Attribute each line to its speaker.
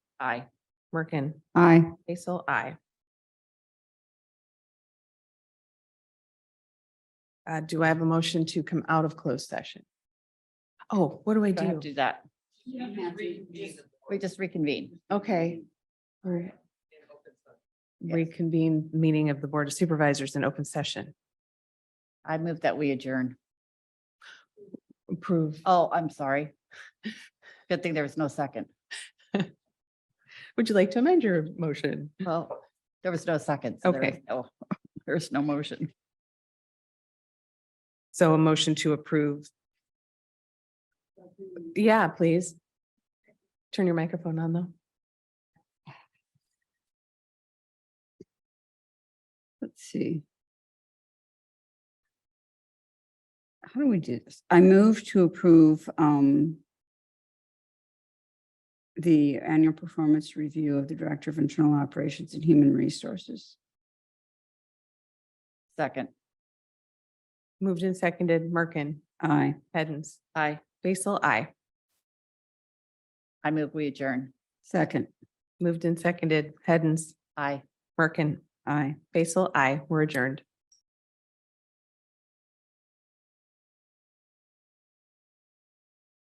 Speaker 1: Aye. Merkin.
Speaker 2: Aye.
Speaker 1: Basil, aye.
Speaker 2: Uh, do I have a motion to come out of closed session? Oh, what do I
Speaker 1: Do I have to
Speaker 2: do?
Speaker 1: do that?
Speaker 3: We just reconvene.
Speaker 2: Okay. All right. Reconvene meeting of the Board of Supervisors in open session.
Speaker 3: I move that we adjourn.
Speaker 2: Approve.
Speaker 3: Oh, I'm sorry. Good thing there was no second.
Speaker 2: Would you like to amend your motion?
Speaker 3: Well, there was no second. so there was
Speaker 2: Okay.
Speaker 3: no- There's no motion.
Speaker 2: So a motion to approve. Yeah, please. Turn your microphone on though.
Speaker 4: Let's see. How do we do this? I move to approve um the annual performance review of the Director of Internal Operations and Human Resources.
Speaker 3: Second.
Speaker 2: Moved and seconded, Merkin,
Speaker 4: Aye.
Speaker 2: Hens,
Speaker 3: I,
Speaker 2: Basil, I.
Speaker 3: I move we adjourn.
Speaker 4: Second.
Speaker 2: Moved and seconded, Hens,
Speaker 3: I.
Speaker 2: Merkin,
Speaker 4: Aye.
Speaker 2: Basil, I. We're adjourned.